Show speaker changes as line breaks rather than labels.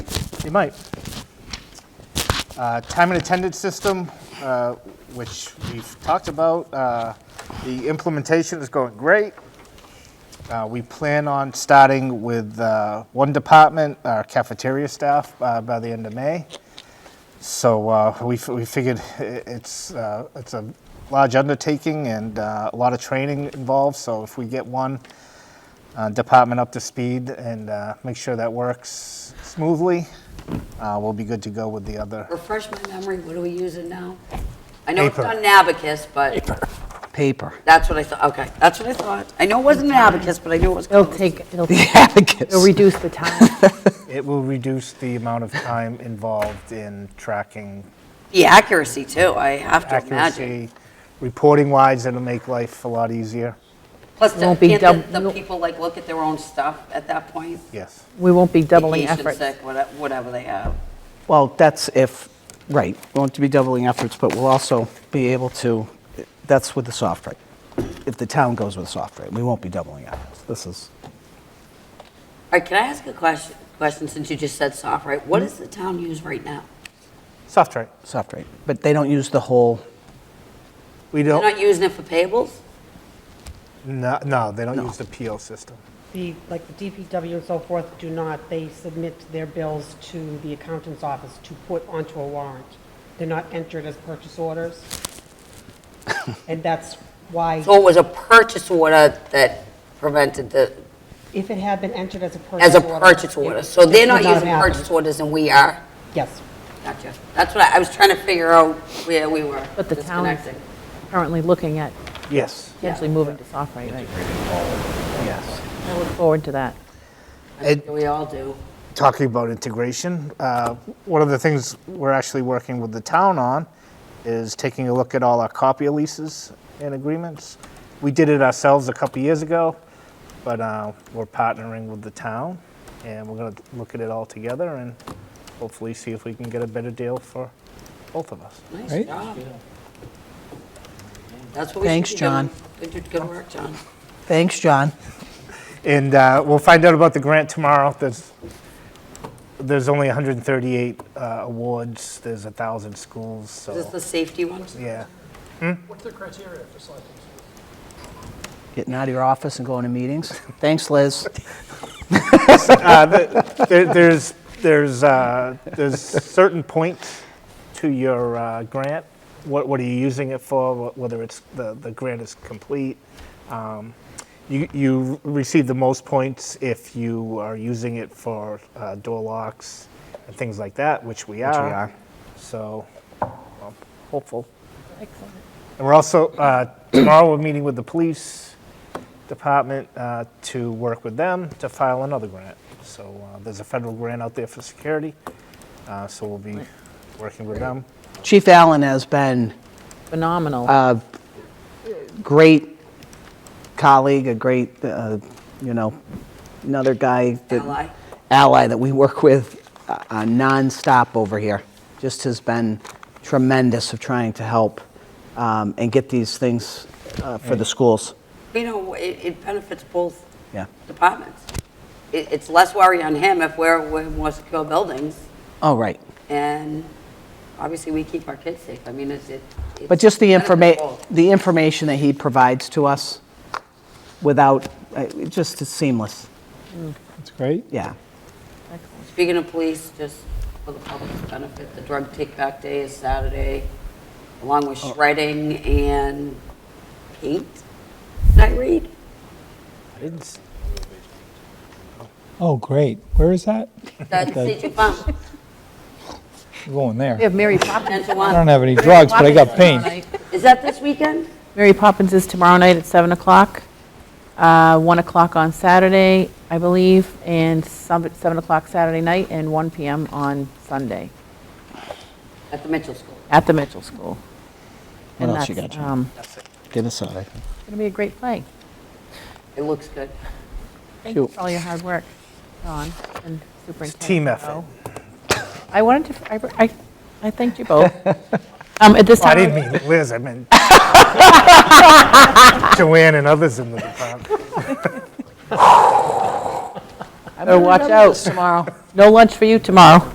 You might. Uh, Time and attendance system, uh, which we've talked about, uh, the implementation is going great. Uh, We plan on starting with uh, one department, our cafeteria staff, uh, by the end of May. So uh, we f- we figured i- it's, uh, it's a large undertaking and uh, a lot of training involved, so if we get one uh, department up to speed and uh, make sure that works smoothly, uh, we'll be good to go with the other.
Refresh my memory, what are we using now? I know it's
Paper.
on Nabocus, but
Paper.
that's what I thought, okay, that's what I thought. I know it wasn't Nabocus, but I knew it was
It'll
close.
take, it'll
The
it'll
abacus.
reduce the time.
It will reduce the amount of time involved in tracking
The accuracy too, I have to imagine.
accuracy. Reporting wise, it'll make life a lot easier.
Plus, the-
Won't be
can't
dub-
the- the
no-
people like look at their own stuff at that point?
Yes.
We won't be doubling
Vacation,
efforts.
sick, whate- Whatever they have.
Well, that's if, right, won't be doubling efforts, but we'll also be able to, that's with the soft rate. If the town goes with soft rate, we won't be doubling efforts. This is,
All right, can I ask a question, question since you just said soft, right? What does the town use right now?
Soft rate.
soft rate. But they don't use the whole,
We
They're
don't,
not using it for payables?
no, no, they don't use the PO system.
The, like the DPW and so forth do not, they submit their bills to the accountant's office to put onto a warrant. They're not entered as purchase orders. And that's why,
So it was a purchase order that prevented the,
if it had been entered as a purchase order.
as a purchase order.
it-
So
this
they're
would
not
have
using
happened.
purchase orders and we are.
Yes.
Gotcha. That's what I, I was trying to figure out where we were
But the town is
disconnecting.
currently looking at
Yes.
potentially moving to soft rate.
Yes.
I look forward to that.
I think We all do.
talking about integration, uh, one of the things we're actually working with the town on is taking a look at all our copy leases and agreements. We did it ourselves a couple years ago, but uh, we're partnering with the town, and we're going to look at it all together and hopefully see if we can get a better deal for both of us.
Nice
Right?
job. That's what we should
Thanks,
be doing.
John.
Good, good work, John.
thanks, John.
And uh, we'll find out about the grant tomorrow. There's, there's only 138 uh, awards. There's 1,000 schools,
Is this
so,
the safety one?
yeah.
What's the criteria for selecting schools?
Getting out of your office and going to meetings. Thanks, Liz.
There- There's, there's, uh, there's certain points to your uh, grant. What, what are you using it for, wh- whether it's, the, the grant is complete? Um, You, you receive the most points if you are using it for uh, door locks and things like that, which we are.
are.
So, well, hopeful. And we're also, uh, tomorrow we're meeting with the police department uh, to work with them to file another grant. So uh, there's a federal grant out there for security, uh, so we'll be working with them.
Chief Allen has been
Phenomenal.
Uh, great colleague, a great, uh, you know, another guy. that-
Ally.
Ally that we work with uh, uh, nonstop over here. Just has been tremendous of trying to help um, and get these things uh, for the schools.
You know, it, it benefits both
Yeah.
departments. It, it's less worry on him if we're, we're more secure buildings
Oh, right.
and obviously we keep our kids safe. I mean, it's, it. it's
But just the
benefits
informa,
both.
the information that he provides to us without, uh, it just is seamless.
That's great.
Yeah.
Speaking of police, just for the public's benefit, the drug take-back day is Saturday, along with
Oh.
shredding and paint. Did I read?
It's-
Oh, great. Where is that?
That's City Farm,
I'm going
We
there.
have Mary Poppins.
10 to
I don't
1.
have any drugs, but I got paint.
Is that this weekend?
Mary Poppins is tomorrow night at 7 o'clock, uh, 1 o'clock on Saturday, I believe, and some- 7 o'clock Saturday night, and 1 PM on Sunday
At the Mitchell School.
at the Mitchell School.
What
And
else you
that's,
got, Jen?
um,
Get us out.
It's going to be a great play.
It looks good.
Thank you for all your hard work, Don and Superintendent.
team
Oh.
effort.
Rowe. I wanted to, I- I, I thanked you both. Um, At this
Oh, I
time.
didn't mean Liz, I meant Joanne and others in the department.
Better watch out tomorrow. No lunch for you tomorrow.